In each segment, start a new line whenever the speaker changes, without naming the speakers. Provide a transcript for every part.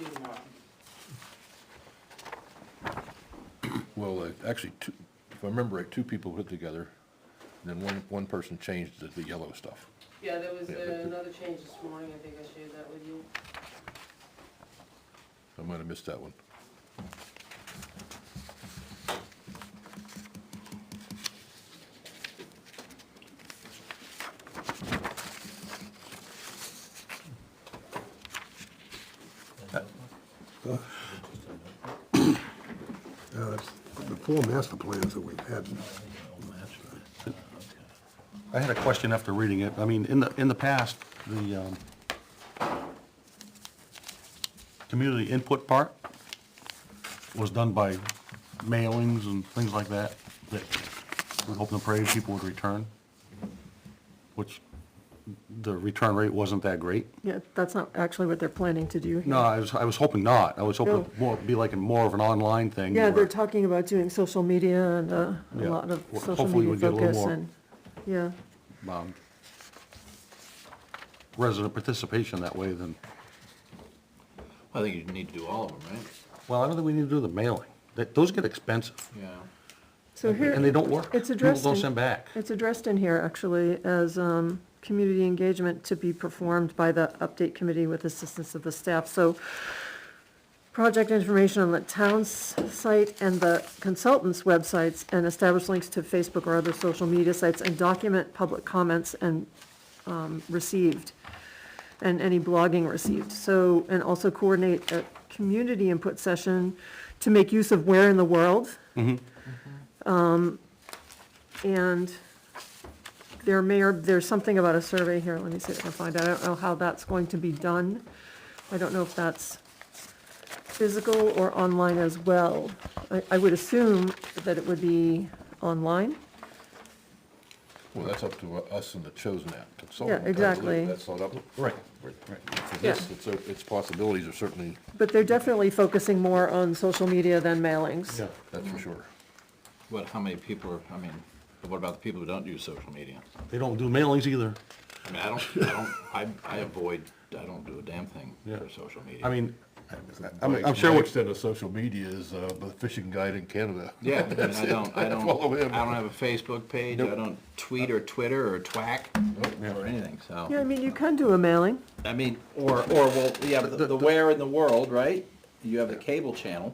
Either one.
Well, uh, actually, two, if I remember right, two people put it together, and then one, one person changed the, the yellow stuff.
Yeah, there was
Yeah, but the-
uh, another change this morning, I think I shared that with you.
I might have missed that one.
Uh, The four master plans that we've had,
I had a question after reading it. I mean, in the, in the past, the um, community input part was done by mailings and things like that, that we hope and pray people would return, which the return rate wasn't that great.
Yeah, that's not actually what they're planning to do here.
No, I was, I was hoping not. I was hoping
No.
more, be like a more of an online thing.
Yeah,
where-
they're talking about doing social media and uh, a
Yeah.
lot of
Well,
social
hopefully we
media
get a little
focus
more.
and, yeah.
um, resident participation that way then,
I think you need to do all of them, right?
well, I don't think we need to do the mailing. That, those get expensive,
Yeah.
So here.
and they don't work.
Mm-hmm. It's addressed
People
in.
don't send back.
It's addressed in here, actually, as, um, community engagement to be performed by the update committee with assistance of the staff, so project information on the town's site and the consultant's websites, and establish links to Facebook or other social media sites, and document public comments and, um, received, and any blogging received, so, and also coordinate a community input session to make use of where in the world, Um, and there may, or there's something about a survey here, let me see if I can find out, I don't know how that's going to be done. I don't know if that's physical or online as well. I, I would assume that it would be online.
Well, that's up to us and the chosen app
Yeah,
consultant. I believe.
exactly.
That's not up.
Right.
For this, it's, a- its possibilities are certainly,
But they're definitely focusing more on social media than mailings.
Yeah.
that's
Mm-hmm.
for sure.
What, how many people are, I mean, what about the people who don't use social media?
They don't do mailings either.
I mean, I don't, I don't, I, I avoid, I don't do a damn thing
Yeah.
for social media.
I mean, I'm, I'm sure what,
extent of social media is, uh, the fishing guide in Canada.
Yeah, I mean, I don't, I don't,
follow him.
I don't have a Facebook page, I don't tweet or Twitter or twack or anything, so.
Yeah, I mean, you can do a mailing,
I mean, or, or, well, yeah, but the, the where in the world, right? You have the cable channel.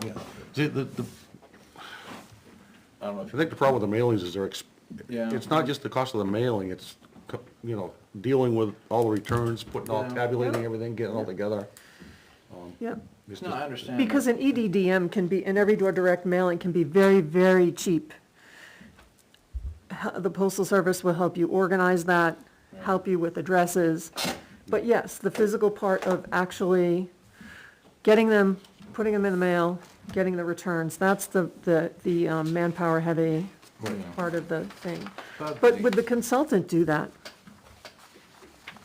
the, the, the-
I don't know if
I think the problem with the mailings is they're, ex-
Yeah.
it's not just the cost of the mailing, it's, co- you know, dealing with all the returns, putting all,
Yeah.
tabulating everything, getting it all together.
yeah.
It's
you, no,
just-
I understand. that.
Because an E EDDM can be, an every door direct mailing can be very, very cheap. H- The postal service will help you organize that, help you with addresses. But yes, the physical part of actually getting them, putting them in the mail, getting the returns, that's the, the, the um, manpower heavy part of the thing.
But
But
the-
would the consultant do that?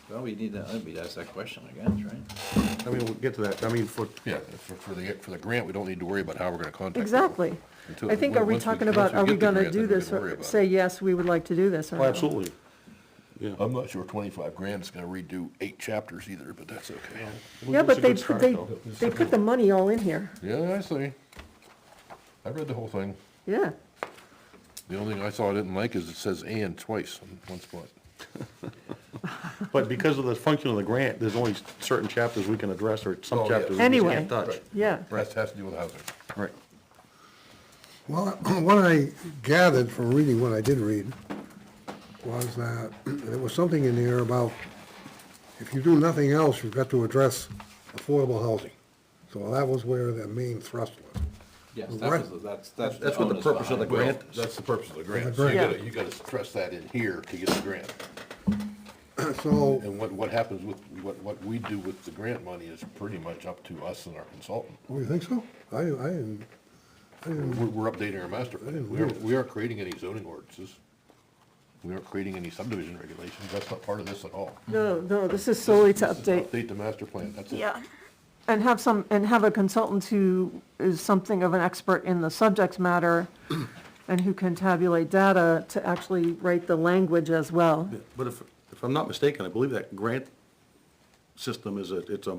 Well, we need to, I think we'd ask that question, I guess, right?
I mean, we'll get to that. I mean, for,
Yeah, for, for the, for the grant, we don't need to worry about how we're gonna contact. people.
Exactly.
Until-
I think, are we
once
talking
once
about, are
get
we
the
gonna
grant,
do
then we
this,
can worry
or
about
say,
it.
yes, we would like to do this, or
oh,
no?
absolutely.
I'm not sure twenty-five grand is gonna redo eight chapters either, but that's okay.
Yeah, but they,
put
they, they put the money all in here,
Yeah, I see. I read the whole thing.
yeah.
The only thing I saw I didn't like is it says "and" twice in one spot.
But because of the function of the grant, there's only certain chapters we can address, or
Oh,
some
yeah.
chapters we just
Anyway.
can't touch.
Yeah,
That has to do with housing.
Right.
well, what I gathered from reading what I did read was that, there was something in there about, if you do nothing else, you've got to address affordable housing. So that was where the main thrust was.
Yes,
The
that
grant-
was, the- that's, that's.
That's what the
onus
purpose of the
behind it.
grant is.
That's the purpose of the grant.
The
So you
grant.
gotta, you gotta stress that in here to get the grant.
So,
And what, what happens with, what, what we do with the grant money is pretty much up to us and our consultant.
oh, you think so? I, I didn't,
We're, we're updating our master plan.
didn't
We aren't,
realize.
we aren't creating any zoning ordinances. We aren't creating any subdivision regulations. That's not part of this at all.
no, no, this is solely to update,
Update the master plan, that's it.
yeah. And have some, and have a consultant who is something of an expert in the subject matter and who can tabulate data to actually write the language as well.
But if, if I'm not mistaken, I believe that grant system is a, it's a